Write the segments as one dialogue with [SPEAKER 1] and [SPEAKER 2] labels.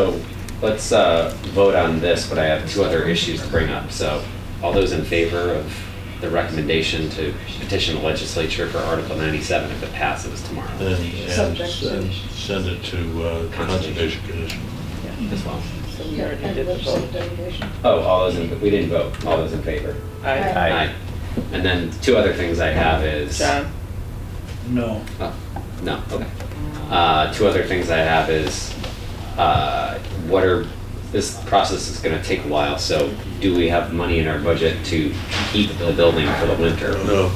[SPEAKER 1] So let's uh, vote on this, but I have two other issues to bring up. So all those in favor of the recommendation to petition the legislature for Article 97 if it passes tomorrow
[SPEAKER 2] And, and send, send it to uh, Conservation Commission.
[SPEAKER 1] as well?
[SPEAKER 3] So we already did the vote.
[SPEAKER 1] Oh, all those in, we didn't vote. All those in favor?
[SPEAKER 3] Aye.
[SPEAKER 1] Aye. And then two other things I have is.
[SPEAKER 3] John?
[SPEAKER 4] No.
[SPEAKER 1] Oh, no, okay. Uh, two other things I have is, uh, what are, this process is gonna take a while, so do we have money in our budget to heat the building for the winter?
[SPEAKER 2] Oh, No.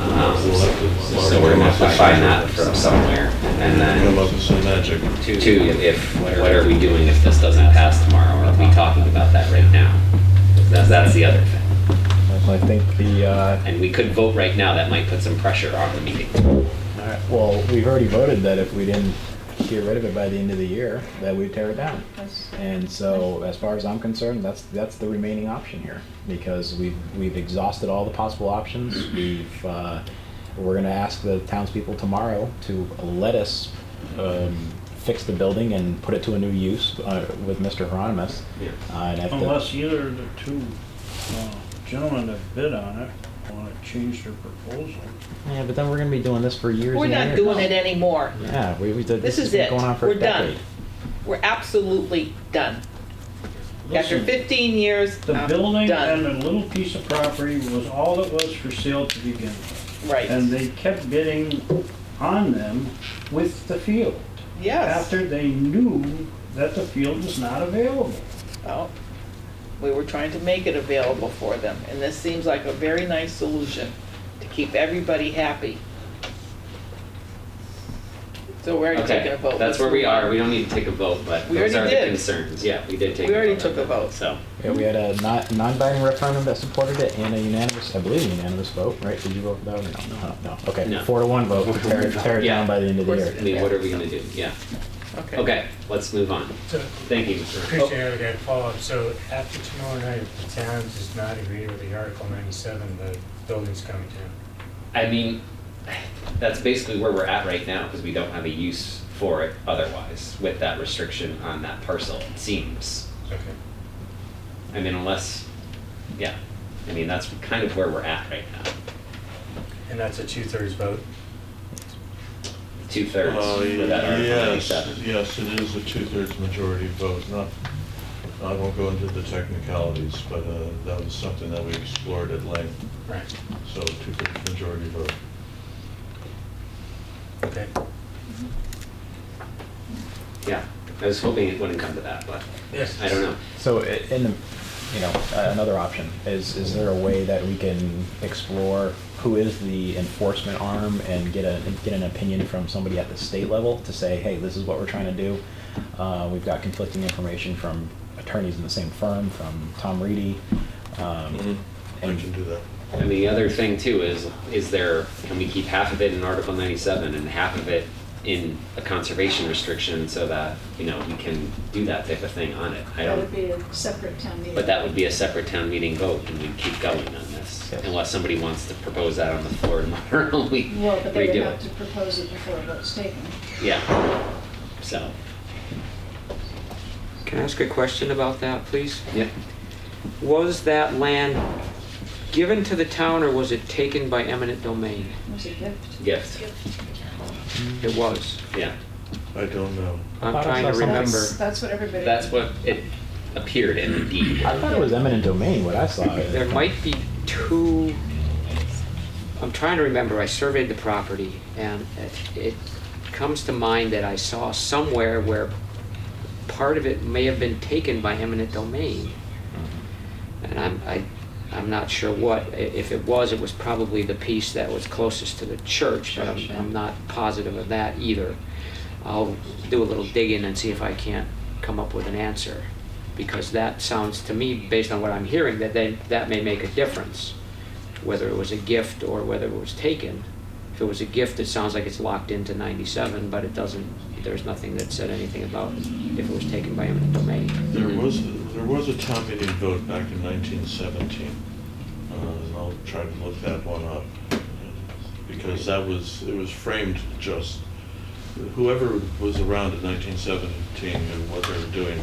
[SPEAKER 1] Um, So we're gonna have to find that from somewhere, and
[SPEAKER 2] Come up
[SPEAKER 1] then
[SPEAKER 2] with some magic.
[SPEAKER 1] two, if, what are we doing if this doesn't pass tomorrow, or are we talking about that right now? That's, that's the other thing.
[SPEAKER 5] I think the, uh,
[SPEAKER 1] And we could vote right now, that might put some pressure on the meeting.
[SPEAKER 5] well, we've already voted that if we didn't get rid of it by the end of the year, that we'd tear it down. And so, as far as I'm concerned, that's, that's the remaining option here, because we've, we've exhausted all the possible options. We've, uh, we're gonna ask the townspeople tomorrow to let us, um, fix the building and put it to a new use, uh, with Mr. Hieronymus.
[SPEAKER 1] Yeah.
[SPEAKER 5] Uh, and if the-
[SPEAKER 4] Unless either of the two uh, gentlemen that bid on it want to change their proposal.
[SPEAKER 5] Yeah, but then we're gonna be doing this for years
[SPEAKER 3] We're
[SPEAKER 5] and
[SPEAKER 3] not
[SPEAKER 5] years.
[SPEAKER 3] doing it anymore.
[SPEAKER 5] Yeah, we, we did,
[SPEAKER 3] This
[SPEAKER 5] this
[SPEAKER 3] is
[SPEAKER 5] has been
[SPEAKER 3] it.
[SPEAKER 5] going on for
[SPEAKER 3] We're
[SPEAKER 5] a
[SPEAKER 3] done.
[SPEAKER 5] decade.
[SPEAKER 3] We're absolutely done. After
[SPEAKER 4] Listen,
[SPEAKER 3] 15 years,
[SPEAKER 4] The
[SPEAKER 3] I'm
[SPEAKER 4] building and
[SPEAKER 3] uh, done.
[SPEAKER 4] the little piece of property was all that was for sale to begin with. And
[SPEAKER 3] Right,
[SPEAKER 4] they kept bidding on them with the field.
[SPEAKER 3] yes.
[SPEAKER 4] After they knew that the field was not available.
[SPEAKER 3] Well, Oh. We were trying to make it available for them, and this seems like a very nice solution to keep everybody happy. So we're already taking
[SPEAKER 1] Okay,
[SPEAKER 3] a vote.
[SPEAKER 1] that's where we are. We don't need to take a vote, but
[SPEAKER 3] We
[SPEAKER 1] those are
[SPEAKER 3] already
[SPEAKER 1] the
[SPEAKER 3] did.
[SPEAKER 1] concerns. Yeah, we did take.
[SPEAKER 3] We already
[SPEAKER 1] on
[SPEAKER 3] took
[SPEAKER 1] that.
[SPEAKER 3] a vote.
[SPEAKER 1] So,
[SPEAKER 5] Yeah, we had a non- non-binding referendum that supported it and a unanimous, I believe unanimous vote, right? Did you vote for that or no? No, no,
[SPEAKER 1] No.
[SPEAKER 5] okay, four to one vote, to tear it, tear it
[SPEAKER 1] Yeah.
[SPEAKER 5] down by the end of the
[SPEAKER 3] Of
[SPEAKER 5] year.
[SPEAKER 3] course.
[SPEAKER 1] I mean, what are we gonna do? Yeah. Okay, let's move on.
[SPEAKER 6] So,
[SPEAKER 1] Thank you, Mr.
[SPEAKER 6] Christian, I got a follow-up. So after tomorrow night, if the town does not agree with the Article 97, the building's coming down.
[SPEAKER 1] I mean, that's basically where we're at right now because we don't have a use for it otherwise with that restriction on that parcel, it seems.
[SPEAKER 6] Okay.
[SPEAKER 1] I mean, unless, yeah, I mean, that's kind of where we're at right now.
[SPEAKER 6] And that's a two-thirds vote.
[SPEAKER 1] Two
[SPEAKER 2] Uh,
[SPEAKER 1] thirds for that Article
[SPEAKER 2] Yes,
[SPEAKER 1] ninety-seven.
[SPEAKER 2] yes, it is a two-thirds majority vote, not, I won't go into the technicalities, but uh, that was something that we explored at length,
[SPEAKER 6] Right.
[SPEAKER 2] so two-thirds majority vote.
[SPEAKER 6] Okay.
[SPEAKER 1] Yeah, I was hoping it wouldn't come to that, but
[SPEAKER 6] Yes.
[SPEAKER 1] I don't know.
[SPEAKER 5] So, i- in the, you know, uh, another option, is, is there a way that we can explore who is the enforcement arm and get a, get an opinion from somebody at the state level to say, hey, this is what we're trying to do? Uh, we've got conflicting information from attorneys in the same firm, from Tom Reedy. um,
[SPEAKER 2] I
[SPEAKER 5] and-
[SPEAKER 2] can do that.
[SPEAKER 1] And the other thing too is, is there, can we keep half of it in Article ninety-seven and half of it in a conservation restriction so that, you know, we can do that type of thing on it? I
[SPEAKER 7] That would
[SPEAKER 1] don't,
[SPEAKER 7] be a separate town meeting.
[SPEAKER 1] but that would be a separate town meeting vote and we'd keep going on this.
[SPEAKER 5] Yes.
[SPEAKER 1] Unless somebody wants to propose that on the floor tomorrow, we
[SPEAKER 7] Well, but they would
[SPEAKER 1] redo
[SPEAKER 7] have to
[SPEAKER 1] it.
[SPEAKER 7] propose it before a vote's taken.
[SPEAKER 1] Yeah, so,
[SPEAKER 8] Can I ask a question about that, please?
[SPEAKER 1] yeah,
[SPEAKER 8] Was that land given to the town or was it taken by eminent domain?
[SPEAKER 7] It was a gift.
[SPEAKER 1] gift,
[SPEAKER 8] It was.
[SPEAKER 1] yeah.
[SPEAKER 2] I don't know.
[SPEAKER 8] I'm
[SPEAKER 5] Thought I
[SPEAKER 8] trying
[SPEAKER 5] saw
[SPEAKER 8] to
[SPEAKER 5] something.
[SPEAKER 8] remember.
[SPEAKER 7] That's that's what everybody.
[SPEAKER 1] That's what it appeared in the deed.
[SPEAKER 5] I thought it was eminent domain, what I saw.
[SPEAKER 8] There might be two, I'm trying to remember, I surveyed the property and it- it comes to mind that I saw somewhere where part of it may have been taken by eminent domain. And I'm, I, I'm not sure what, I- if it was, it was probably the piece that was closest to the church, but I'm, I'm not positive of that either. I'll do a little digging and see if I can't come up with an answer, because that sounds to me, based on what I'm hearing, that they, that may make a difference, whether it was a gift or whether it was taken. If it was a gift, it sounds like it's locked into ninety-seven, but it doesn't, there's nothing that said anything about if it was taken by eminent domain.
[SPEAKER 2] There was, there was a town meeting vote back in 1917, uh, and I'll try to look that one up, because that was, it was framed just whoever was around in nineteen seventeen and what they were doing